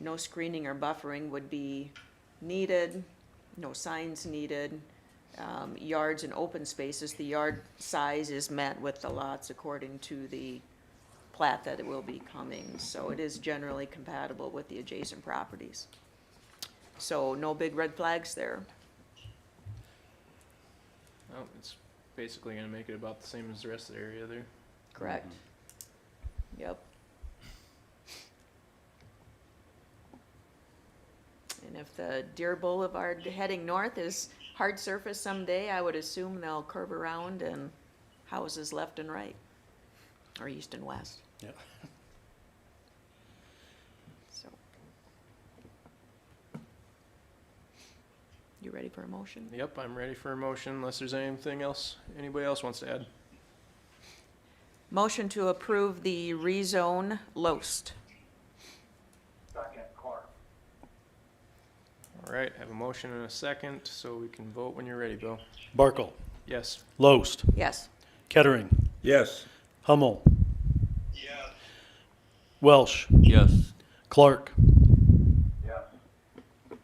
no screening or buffering would be needed, no signs needed. Um, yards and open spaces, the yard size is met with the lots according to the plat that it will be coming, so it is generally compatible with the adjacent properties. So no big red flags there. Oh, it's basically gonna make it about the same as the rest of the area there. Correct. Yep. And if the Deer Boulevard heading north is hard surface someday, I would assume they'll curve around and houses left and right, or east and west. Yeah. So. You ready for a motion? Yep, I'm ready for a motion unless there's anything else anybody else wants to add. Motion to approve the rezone Loest. Second, Clark. All right, have a motion and a second, so we can vote when you're ready, Bill. Barkle, Yes. Loest, Yes. Kettering, Yes. Hummel, Yes. Welsh, Yes. Clark. Yes. Give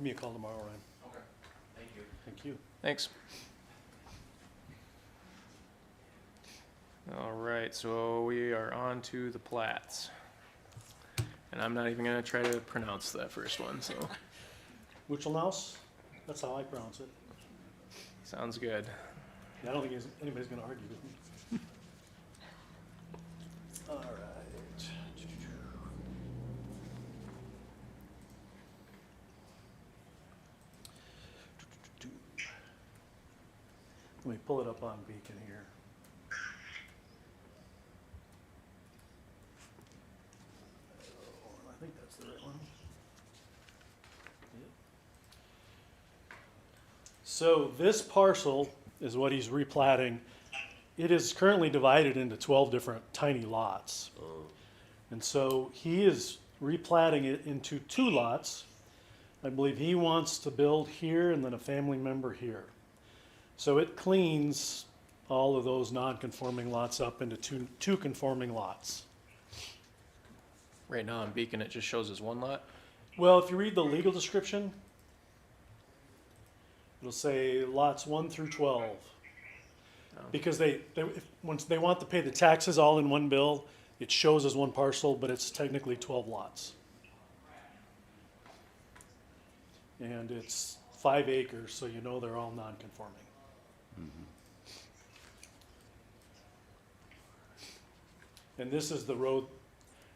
me a call tomorrow, Ryan. Okay, thank you. Thanks. All right, so we are on to the plats. And I'm not even gonna try to pronounce that first one, so, Thank you. Wuchelnaus, that's how I pronounce it. sounds good. I don't think there's- anybody's gonna argue with me. All right. Let me pull it up on Beacon here. Oh, I think that's the right one. Yep. So this parcel is what he's replatting. It is currently divided into twelve different tiny lots. And so he is replatting it into two lots. I believe he wants to build here and then a family member here. So it cleans all of those non-conforming lots up into two, two conforming lots. Right now on Beacon, it just shows as one lot. Well, if you read the legal description, it'll say lots one through twelve. Oh. Because they, they, if, once they want to pay the taxes all in one bill, it shows as one parcel, but it's technically twelve lots. And it's five acres, so you know they're all non-conforming. And this is the road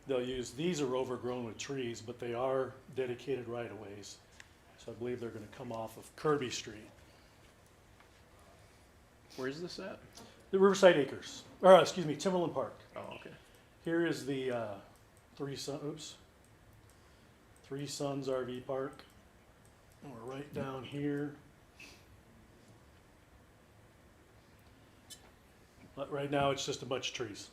they'll use, these are overgrown with trees, but they are dedicated right-of-ways. So I believe they're gonna come off of Kirby Street, Where's this at? the Riverside Acres, or, uh, excuse me, Timberland Park. Oh, okay. Here is the, uh, Three Sun, oops, Three Suns RV Park. And we're right down here. But right now, it's just a bunch of trees.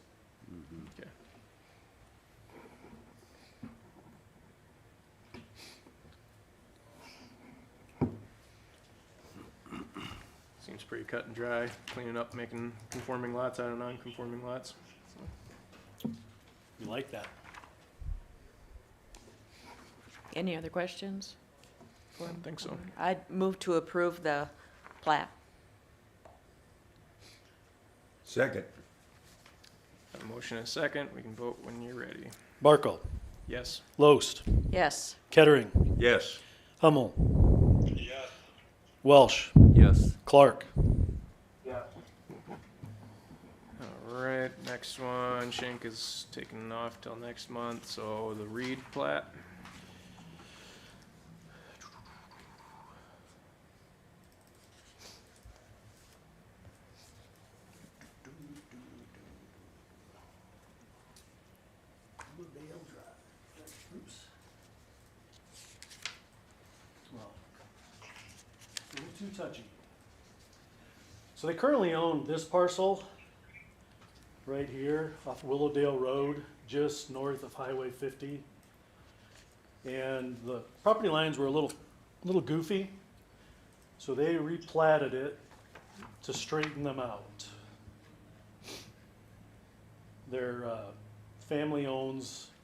Seems pretty cut and dry, cleaning up, making conforming lots out of non-conforming lots. You like that? Any other questions? I don't think so. I'd move to approve the plat. Second. Have a motion and a second, we can vote when you're ready. Barkle, Yes. Loest, Yes. Kettering, Yes. Hummel, Yes. Welsh, Yes. Clark. Yes. All right, next one, Shank is taking off till next month, so the Reed plat. Well, a little too touchy. So they currently own this parcel right here off Willowdale Road, just north of Highway 50. And the property lines were a little, little goofy, so they replatted it to straighten them out. Their uh, family owns